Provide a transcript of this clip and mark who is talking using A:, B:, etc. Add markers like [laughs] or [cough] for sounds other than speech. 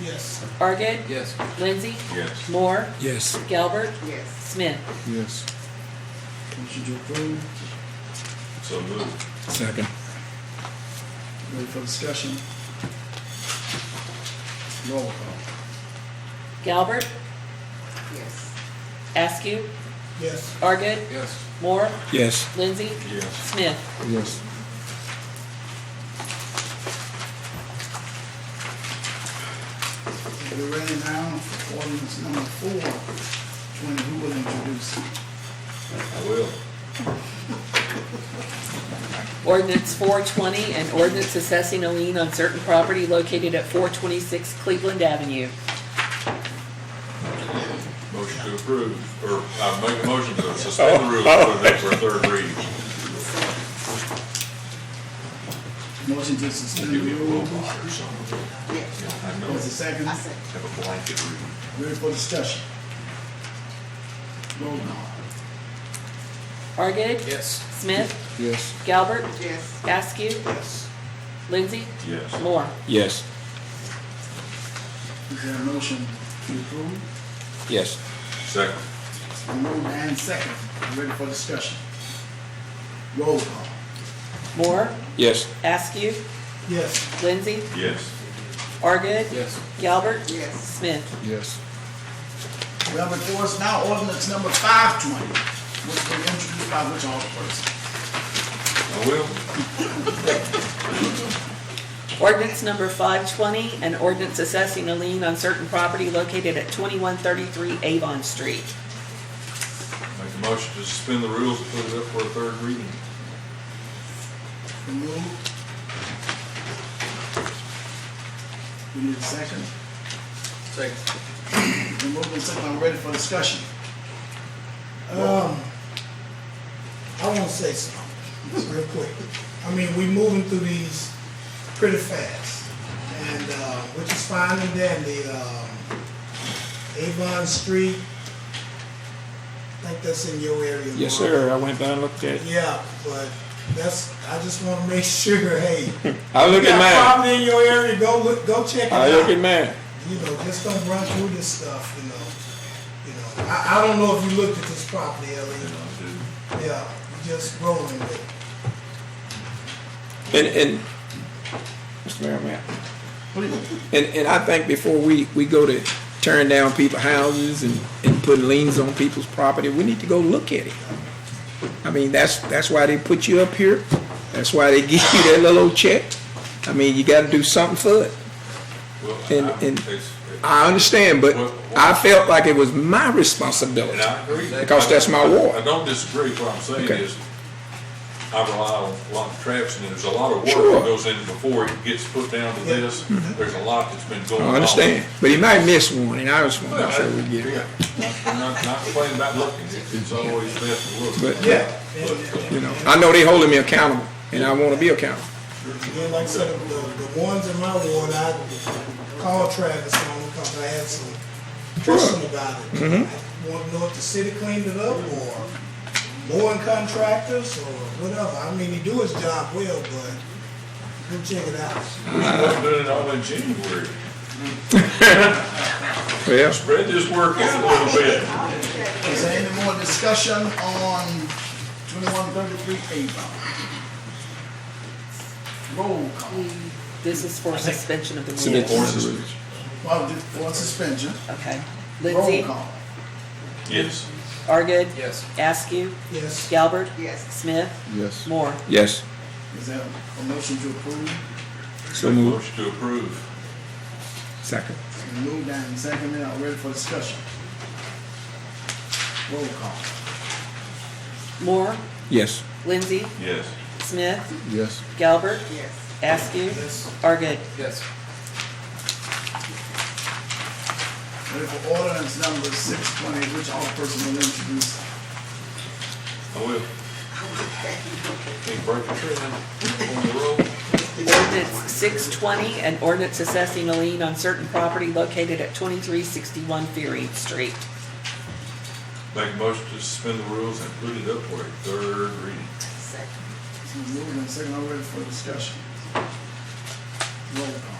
A: Yes.
B: Argid,
C: Yes.
B: Lindsay,
D: Yes.
B: Moore,
C: Yes.
B: Galbert,
A: Yes.
B: Smith.
C: Yes.
E: Motion to approve.
D: So moved.
C: Second.
E: Ready for discussion? Roll call.
B: Galbert,
A: Yes.
B: Askew,
A: Yes.
B: Argid,
C: Yes.
B: Moore,
C: Yes.
B: Lindsay,
D: Yes.
B: Smith.
C: Yes.
E: We're ready now for ordinance number four. When who will introduce?
D: I will.
B: Ordinance 420, an ordinance assessing a lien on certain property located at 426 Cleveland Avenue.
D: Motion to approve, or I make a motion to suspend the
F: Oh.
D: rules for the for third reading.
E: Motion to suspend the
D: Give me a roll
E: rules.
D: call or something.
A: Yes.
D: I know,
E: Was the second?
A: I said,
D: have a blanket reading.
E: Ready for discussion? Roll call.
B: Argid,
C: Yes.
B: Smith,
C: Yes.
B: Galbert,
A: yes.
B: Askew,
E: Yes.
B: Lindsay,
D: Yes.
B: Moore.
C: Yes.
E: Is there a motion to approve?
C: Yes.
D: Second.
E: Moved and second. Ready for discussion? Roll call.
B: Moore,
C: Yes.
B: Askew,
E: Yes.
B: Lindsay,
D: Yes.
B: Argid,
C: Yes.
B: Galbert,
A: Yes.
B: Smith.
C: Yes.
E: We have before us now ordinance number five twenty, which will be introduced by which alderperson?
D: I will.
B: Ordinance number 520, an ordinance assessing a lien on certain property located at 2133 Avon Street.
D: Make a motion to suspend the rules and put it up for a third reading.
E: Moved. We need a second.
C: Second.
E: The moved and second, I'm ready for discussion. Um,
G: I want to say something, real quick. I mean, we moving through these pretty fast, and, uh, which is fine and dandy, um, Avon Street, I think that's in your area.
F: Yes,
G: Mark.
F: sir. I went down and looked at it.
G: Yeah, but that's, I just want to make [laughs] sure, hey.
F: I look
G: you
F: at
G: got
F: mine.
G: Problem in your area, go look, go check it out.
F: I look at mine.
G: You know, just don't run through this stuff, you know, you know. I, I don't know if you looked at this property,
D: And
G: Ellie,
D: I do.
G: yeah, you just rolling with it.
F: And, and, Mr. Mayor, ma'am. And, and I think before we, we go to tearing down people's houses and, and putting liens on people's property, we need to go look at it. I mean, that's, that's why they put you up here. That's why they [laughs] give you that little old check. I mean, you gotta do something for it.
D: Well,
F: And-
D: I-
F: and-
D: it's-
F: I understand, but I felt like it was my responsibility.
D: And I agree.
F: Because that's my
D: I
F: ward.
D: don't disagree, what I'm saying
F: Okay.
D: is, I rely on a lot of traps, and there's a lot of work
F: Sure.
D: that
F: Mm-hmm.
D: goes in before it gets put down to this, there's a lot that's been going on.
F: I understand, but he might miss one, and I just want to make sure we get it.
D: I'm not, not complaining about looking, It's- it's always best to look.
F: But-
G: Yeah.
D: But, uh,
F: You know, I know they holding me accountable, and I want to be accountable.
G: Again, like I said, the, the ones in my ward, I called Travis on because I had some question about it. I want to know if the city cleaned it up or mowing contractors or whatever. I mean, he do his job well, but go check it out.
D: We should
F: uh,
D: have done it all in January,
F: Well,
D: spread this work out a little bit.
E: is there any more discussion on twenty-one thirty-three Avon? Roll call.
B: This is for suspension of the
F: Submit
B: rules.
F: to
D: Or is it-
E: Well, just for suspension,
B: Okay.
E: roll
B: Lindsay,
E: call.
D: Yes,
B: Argid,
C: Yes.
B: Askew,
G: Yes,
B: Galbert,
A: Yes.
B: Smith,
C: Yes.
B: Moore.
F: yes,
E: Is there a motion to approve?
F: so move.
D: motion to approve,
F: Second.
E: Moved and seconded, I'm ready for discussion. Roll call.
B: Moore,
F: Yes.
B: Lindsay,
D: yes.
B: Smith,
C: Yes.
B: Galbert,
A: Yes.
B: Askew,
G: yes.
B: Argid.
C: Yes.
E: Ready for ordinance number six twenty, which all person will introduce.
D: I will. Can't break the trend on the road.
B: Ordinance 620, an ordinance assessing a lien on certain property located at 2361 Fearing Street.
D: Make a motion to suspend the rules and put it up for a third reading.
A: Second.
E: It's been moved and seconded, I'm ready for discussion. Roll call.